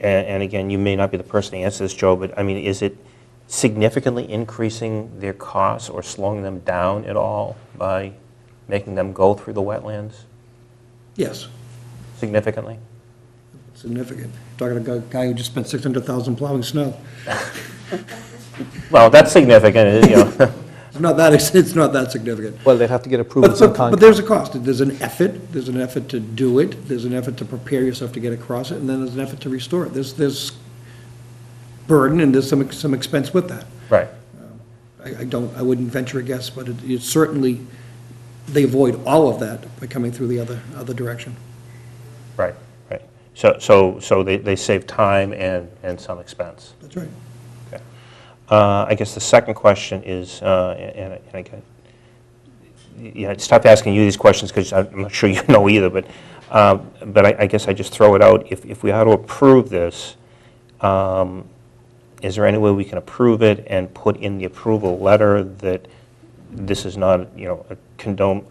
And, and again, you may not be the person to answer this, Joe, but I mean, is it significantly increasing their costs or slowing them down at all by making them go through the wetlands Yes, significantly? significant. Talking to a guy who just spent 600,000 plowing snow. Well, that's significant, you know. It's not that, it's not that significant. Well, they'd have to get approval But, from but but Concom. there's a cost. There's an effort, there's an effort to do it, there's an effort to prepare yourself to get across it, and then there's an effort to restore it. There's, there's burden and there's some, some expense with that. Right. I, I don't, I wouldn't venture a guess, but it, it certainly, they avoid all of that by coming through the other, other direction. Right, right. So, so, so they, they save time and, and some expense. That's right. Okay. Uh, I guess the second question is, uh, and, and I can, yeah, it's tough asking you these questions because I'm not sure you know either, but, um, but I, I guess I just throw it out. If, if we are to approve this, um, is there any way we can approve it and put in the approval letter that this is not, you know, a condone,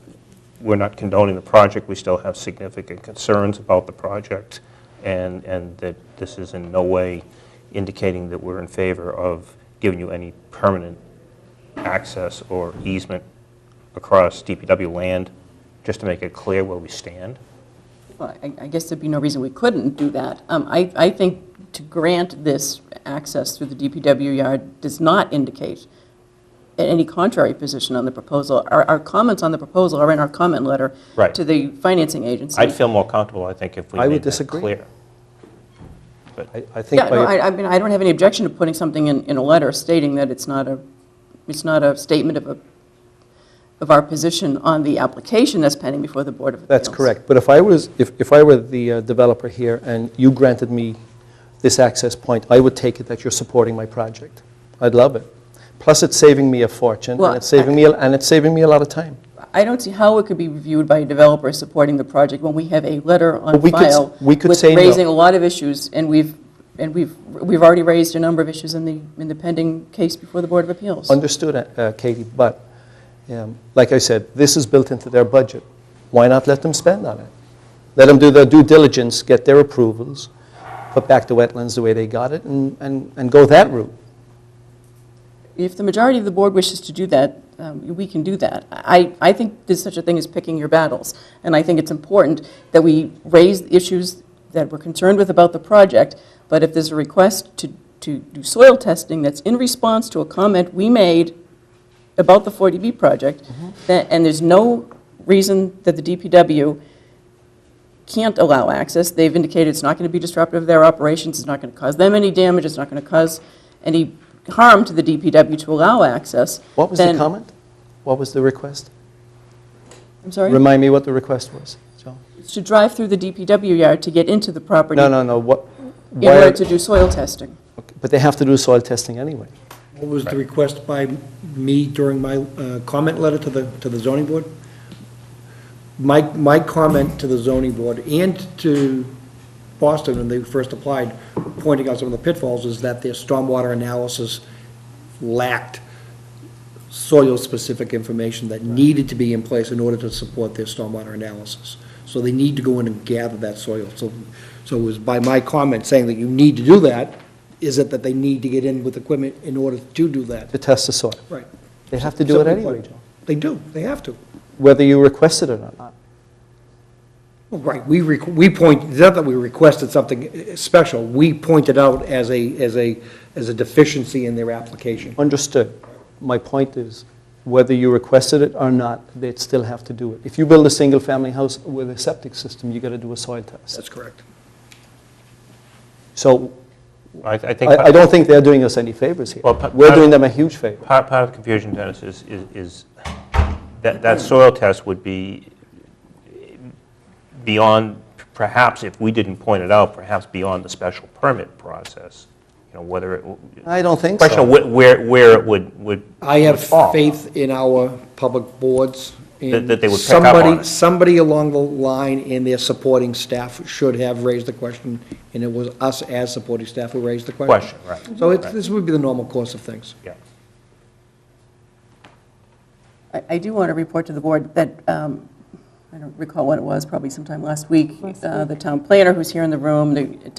we're not condoning the project, we still have significant concerns about the project, and, and that this is in no way indicating that we're in favor of giving you any permanent access or easement across DPW land, just to make it clear where we stand? Well, I I guess there'd be no reason we couldn't do that. Um, I I think to grant this access through the DPW yard does not indicate any contrary position on the proposal. Our our comments on the proposal are in our comment letter Right. to the financing agency. I'd feel more comfortable, I think, if we I would made that disagree. clear. I I think Yeah, no, by, I I mean, I don't have any objection to putting something in in a letter stating that it's not a, it's not a statement of a, of our position on the application that's pending before the Board of Appeals. that's correct. But if I was, if if I were the uh, developer here and you granted me this access point, I would take it that you're supporting my project. I'd love it. Plus, it's saving me a fortune, Well, and it's saving me, a- and it's saving me a lot of time. I don't see how it could be reviewed by a developer supporting the project when we have a letter on But we could s- file. we could say no. With raising a lot of issues, and we've, and we've, we've already raised a number of issues in the, in the pending case before the Board of Appeals. Understood, uh, Katie, but, um, like I said, this is built into their budget. Why not let them spend on it? Let them do their due diligence, get their approvals, put back the wetlands the way they got it, and, and and go that route. If the majority of the board wishes to do that, um, we can do that. I, I think there's such a thing as picking your battles, and I think it's important that we raise issues that we're concerned with about the project, but if there's a request to, to do soil testing that's in response to a comment we made about the 40B project, Mm-hmm. tha- and there's no reason that the DPW can't allow access. They've indicated it's not going to be disruptive of their operations, it's not going to cause them any damage, it's not going to cause any harm to the DPW to allow access. What was the then- comment? What was the request? I'm sorry? Remind me what the request was, Joe. It's To drive through the DPW yard to get into the property No, in no, no, what? why order are- to do soil testing. But they have to do soil testing anyway. What was the request by me during my uh, comment letter to the, to the zoning board? My, my comment to the zoning board and to Boston when they first applied, pointing out some of the pitfalls, is that their stormwater analysis lacked soil-specific information that needed to be in place in order to support their stormwater analysis. So they need to go in and gather that soil. So, so it was by my comment saying that you need to do that, is it that they need to get in with equipment in order to do that? To test the soil. Right. They have to do it anyway, Joe, They do, they have to. whether you requested it or not. Well, Right, we, requ- we point, it's not that we requested something eh, special, we pointed out as a, as a, as a deficiency in their application. Understood. My point is, whether you requested it or not, they'd still have to do it. If you build a single-family house with a septic system, you got to do a soil test. That's correct. So I I think. I I don't think they're doing us any favors here. Well, pa- We're pa- doing them a huge favor. Part, part of the confusion, Dennis, is, is- is that, that soil test would be beyond, perhaps if we didn't point it out, perhaps beyond the special permit process, you know, whether it. I don't think Question of so. wh- where, where it would, would. I would have fall. faith in our public boards. and That- that they would pick up on somebody- it. Somebody along the line in their supporting staff should have raised the question, and it was us as supporting staff who raised the question. Question, right. So it's, Right. this would be the normal course of things. Yeah. I I do want to report to the board that, um, I don't recall when it was, probably sometime last week, uh, the town planner who's here in the room, the